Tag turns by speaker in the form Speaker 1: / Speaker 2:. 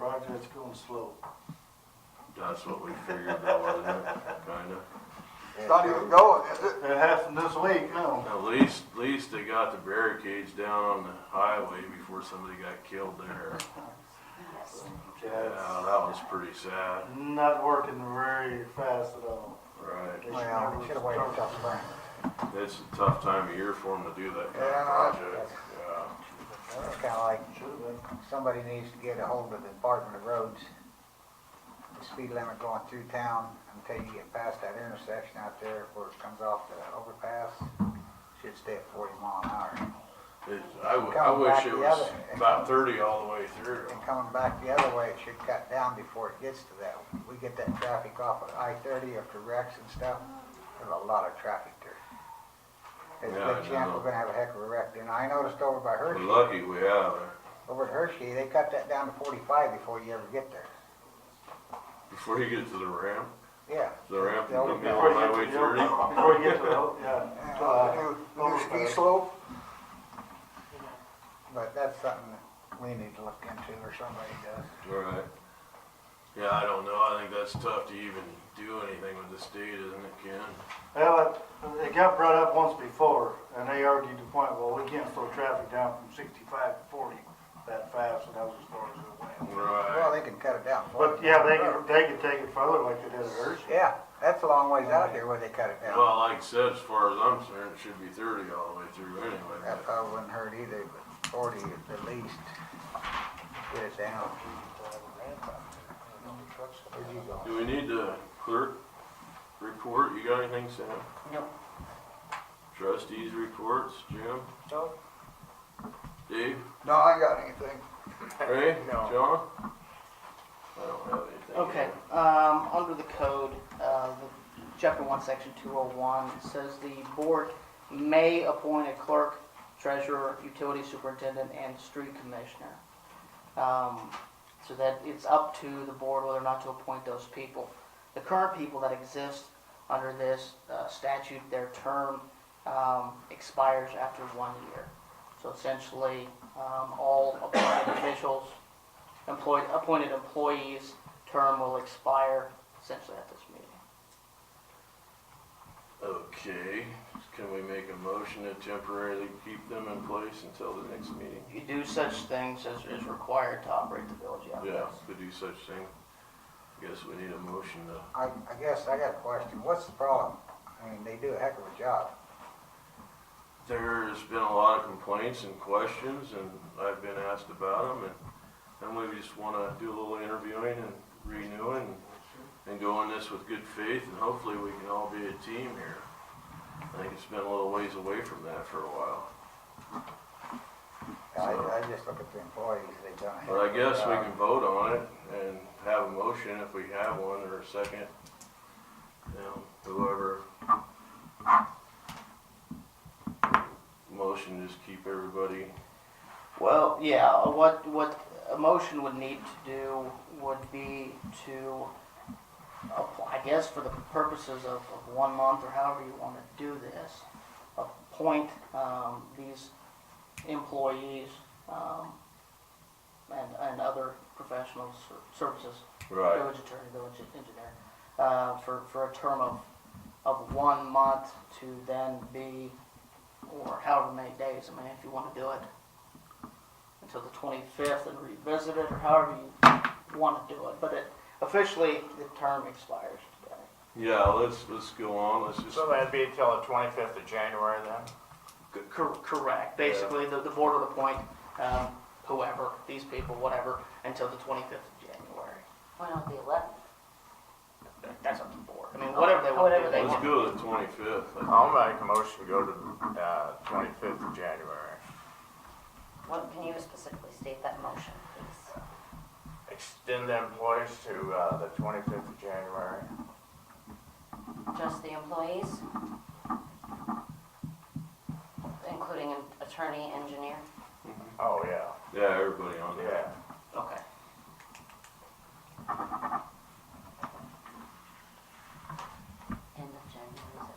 Speaker 1: That's going slow.
Speaker 2: That's what we figured that was, kinda.
Speaker 3: It's not even going, is it?
Speaker 1: That happened this week, no.
Speaker 2: At least, at least they got the barricades down on the highway before somebody got killed there.
Speaker 1: Yeah,
Speaker 2: Yeah, that
Speaker 1: it's
Speaker 2: was pretty sad.
Speaker 1: Not working very fast at all.
Speaker 2: Right.
Speaker 3: Well, we should've waited till spring.
Speaker 2: It's a tough time of year for them to do that kind
Speaker 3: Yeah.
Speaker 2: of project. Yeah.
Speaker 3: It's kinda like,
Speaker 1: Should've been.
Speaker 3: somebody needs to get a hold of the Department of Roads. The speed limit going through town until you get past that intersection out there where it comes off the overpass, should stay at forty mile an hour.
Speaker 2: It, I, w- I
Speaker 3: Coming
Speaker 2: wish
Speaker 3: back
Speaker 2: it
Speaker 3: the
Speaker 2: was
Speaker 3: other-
Speaker 2: about thirty all the way through.
Speaker 3: And coming back the other way, it should cut down before it gets to that. We get that traffic off of I thirty after wrecks and stuff, there's a lot of traffic there. There's
Speaker 2: Yeah, I
Speaker 3: a good chance
Speaker 2: know.
Speaker 3: we're gonna have a heck of a wreck, and I noticed over by
Speaker 2: We're
Speaker 3: Hershey.
Speaker 2: lucky we have it.
Speaker 3: Over at Hershey, they cut that down to forty-five before you ever get there.
Speaker 2: Before you get to the ramp,
Speaker 3: Yeah.
Speaker 2: the ramp
Speaker 3: The
Speaker 2: in the middle
Speaker 3: overpass.
Speaker 2: of Highway thirty.
Speaker 1: Before you get to the, yeah. to,
Speaker 3: Uh,
Speaker 1: uh,
Speaker 3: new- new ski
Speaker 1: overpass.
Speaker 3: slope. But that's something that we need to look into, or somebody does.
Speaker 2: Right. Yeah, I don't know. I think that's tough to even do anything with the state, isn't it, Ken?
Speaker 1: Well, it, it got brought up once before, and they argued the point, well, we can't slow traffic down from sixty-five to forty that fast, and that was as far as it went.
Speaker 3: Well,
Speaker 2: Right.
Speaker 3: they can cut it down.
Speaker 1: But, yeah, they could, they could take it further like they did at Hershey.
Speaker 3: Yeah, that's a long ways out here where they cut it down.
Speaker 2: Well, like I said, as far as I'm concerned, it should be thirty all the way through anyway.
Speaker 3: That probably wouldn't hurt either, but forty at the least. Get it down. Where'd you go?
Speaker 2: Do we need the clerk report? You got anything, Sam?
Speaker 3: No.
Speaker 2: Trustees reports, Jim?
Speaker 3: No.
Speaker 2: Dave?
Speaker 3: No, I got anything.
Speaker 2: Ray?
Speaker 4: No.
Speaker 2: John? I don't have anything.
Speaker 4: Okay, um, under the code, uh, the chapter one, section two oh one, it says the board may appoint a clerk, treasurer, utility superintendent, and street commissioner. Um, so that it's up to the board whether or not to appoint those people. The current people that exist under this uh, statute, their term, um, expires after one year. So essentially, um, all appointed officials, employed, appointed employees term will expire essentially at this meeting.
Speaker 2: Okay, can we make a motion to temporarily keep them in place until the next meeting?
Speaker 4: You do such things as is required to operate the village out
Speaker 2: Yeah, to do such thing. Guess we need a motion to,
Speaker 3: I, I guess I got a question. What's the problem? I mean, they do a heck of a job.
Speaker 2: there's been a lot of complaints and questions and I've been asked about them and, and we just wanna do a little interviewing and renewing and go on this with good faith and hopefully we can all be a team here. I think it's been a little ways away from that for a while.
Speaker 3: I,
Speaker 2: So-
Speaker 3: I just look at the employees, they've done a heck of
Speaker 2: But I
Speaker 3: a job.
Speaker 2: guess we can vote on it and have a motion if we have one or a second. You know, whoever. Motion, just keep everybody,
Speaker 4: Well, yeah, what, what a motion would need to do would be to, app- I guess for the purposes of, of one month or however you want to do this, appoint, um, these employees, um, and, and other professional ser- services
Speaker 2: right,
Speaker 4: village attorney, village engineer, uh, for, for a term of, of one month to then be, or however many days, I mean, if you wanna do it until the twenty-fifth and revisit it, or however you wanna do it, but it, officially, the term expires today.
Speaker 2: yeah, let's, let's go on, let's just,
Speaker 5: So that'd be until the twenty-fifth of January then?
Speaker 4: C- cor- Correct, basically, the, the board would appoint, um, whoever, these people, whatever, until the twenty-fifth of January.
Speaker 6: Why not the eleventh?
Speaker 4: That- That's up to the board, I mean, whatever they wanna do,
Speaker 6: Whatever
Speaker 4: they
Speaker 6: they
Speaker 4: want.
Speaker 2: let's go to the twenty-fifth.
Speaker 5: I'll make a motion to go to, uh, twenty-fifth of January.
Speaker 6: What, can you specifically state that motion, please?
Speaker 5: Extend the employees to, uh, the twenty-fifth of January.
Speaker 6: Just the employees? Including an attorney, engineer?
Speaker 5: Oh, yeah,
Speaker 2: Yeah, everybody on there.
Speaker 5: yeah.
Speaker 4: Okay.
Speaker 6: End of January, is